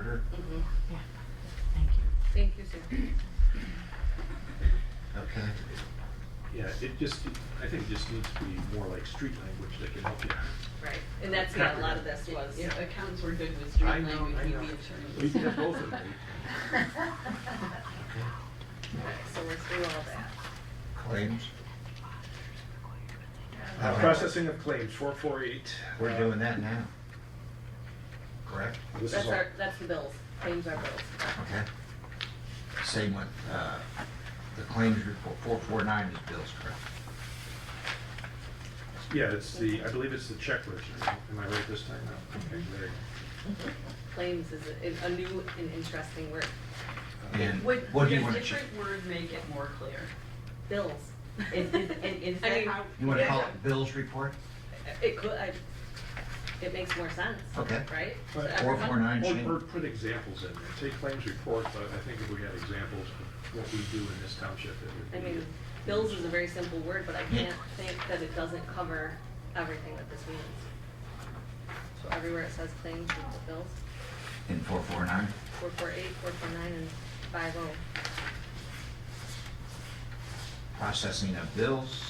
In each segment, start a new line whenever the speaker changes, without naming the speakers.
Mhm.
Thank you.
Thank you, Sue.
Okay.
Yeah, it just, I think it just needs to be more like street language that can help you.
Right, and that's what a lot of this was.
Yeah, Accountants were good with street
I know,
language,
I
we'd be
know.
attorneys.
We did both of them.
Okay, So let's do all that.
Claims,
Uh, Processing of claims, four four eight.
we're doing that now. Correct?
Uh, This is
That's
all,
our, that's the bills, claims are bills.
Okay. Same with, uh, the claims report, four four nine is bills, correct?
yeah, it's the, I believe it's the check register. Am I right this time? No. Okay, there you
Claims is a- is a new and interesting word,
go.
And
Would,
what
would
do
a
you want to change?
different word make it more clear?
bills.
Is, is, and is
I
that
mean,
how?
You want to call it bills report?
It could, I, it makes more sense.
Okay.
Right? So
Right.
Four
everyone-
four nine change.
Or, or put examples in there. Take claims report, but I think if we had examples of what we do in this township,
I
it would be.
mean, bills is a very simple word, but I
Yeah.
can't think that it doesn't cover everything that this means. So everywhere it says claims, it's bills,
In four four nine?
four four eight, four four nine, and five oh.
Processing of bills,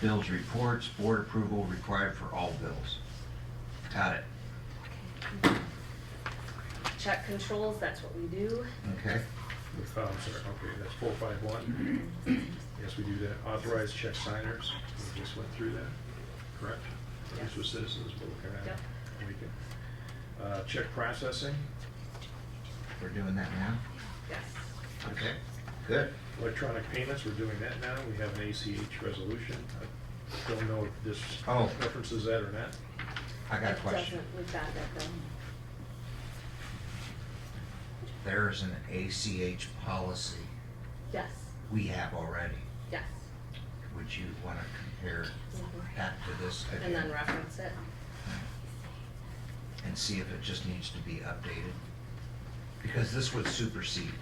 bills reports, board approval required for all bills. Got it,
Check controls, that's what we do.
okay?
Oh, I'm sorry, okay, that's four five one. Yes, we do that. Authorized check signers, we just went through that, correct? These
Yes.
were citizens, we're looking at.
Yep.
it. We can- Uh, check processing,
We're doing that now?
Yes.
Okay, good.
electronic payments, we're doing that now. We have an ACH resolution. I don't know if this
Oh.
references that or not.
I got a question.
It doesn't, we've got that though.
There is an ACH policy
Yes,
we have already.
yes.
Would you want to compare that to this?
And then
again?
reference it.
And see if it just needs to be updated? Because this would supersede.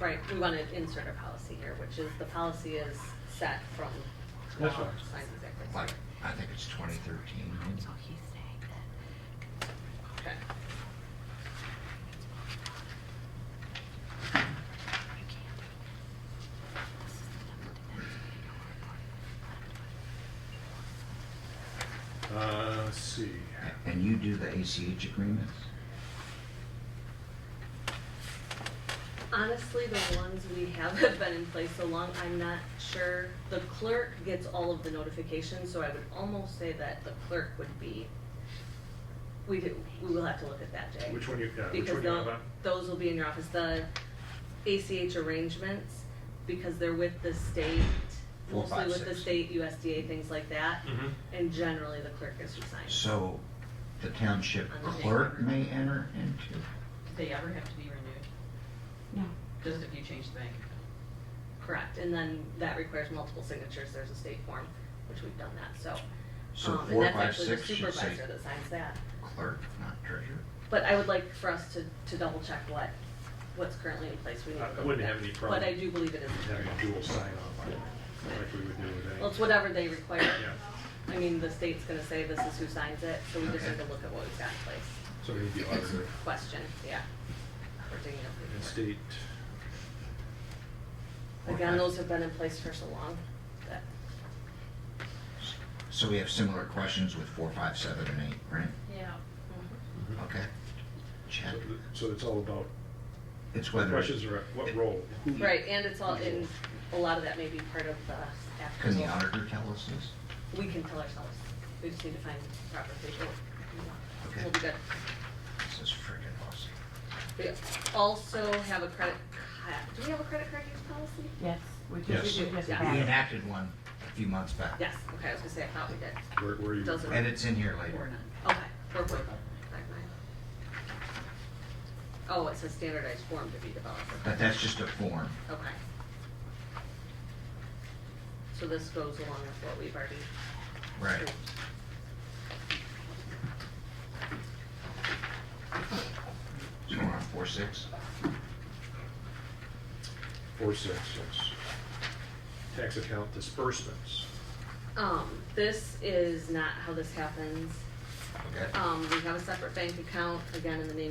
Right, we want to insert a policy here, which is the policy is set from.
That's
law,
fine.
signed executive
Like,
session.
I think it's 2013. maybe?
Okay.
Uh, let's see.
A- And you do the ACH agreements?
Honestly, the ones we have have been in place so long, I'm not sure. The clerk gets all of the notifications, so I would almost say that the clerk would be, we do, we will have to look at that, Jay.
Which one you, yeah, which
Because
one you
tho-
have on?
those will be in your office, the ACH arrangements, because they're with the state,
Four,
mostly
five,
with the
six.
state USDA, things like that.
Mhm.
And generally, the clerk is assigned.
So the township
On the day.
clerk may enter into?
Do they ever have to be renewed?
No.
Just if you change the bank account?
Correct, and then that requires multiple signatures, there's a state form, which we've done that, so.
So
um,
four, five,
And
six
that's actually the
should say
supervisor that signs that.
clerk, not treasurer?
But I would like for us to, to double check what, what's currently in place. We need
I- I
to look
wouldn't
at
have
that.
any problem
But I do believe it is.
Having a dual sign off on it, like we would do with any.
Well, it's whatever they require.
Yeah.
I mean, the state's gonna say this is who signs it, so we just
Okay.
have to look at what we've got in place.
So we need the auditor
Question, yeah. We're digging up the
and
report.
state.
Again,
Okay.
those have been in place for so long that,
So we have similar questions with four, five, seven, and eight, right?
Yeah.
Mm-hmm.
Okay. Check.
So- So it's all about,
It's
the
whether.
questions are, what role? who-
Mhm.
right, and it's all in, a lot of that may be part of the after.
Can the auditor tell us this?
We can tell ourselves. We just need to find proper people.
Okay.
We'll be good.
This is freaking awesome.
We also have a credit, ca- do we have a credit card use policy?
Yes, we do,
Yes.
we do, yes, we
Yeah.
We
have.
enacted one a few months back.
Yes, okay, I was gonna say, I thought we did.
Where, where you?
Doesn't-
And it's in here
Or
later.
not?
Okay, four point five nine. Oh, it's a standardized form to be developed.
But that's just a form.
Okay. So this goes along with what we've already.
Right.
approved.
So we're on four, six.
Four, six, six. Tax account disbursements.
Um, this is not how this happens.
Okay.
Um, we have a separate bank account, again, in the name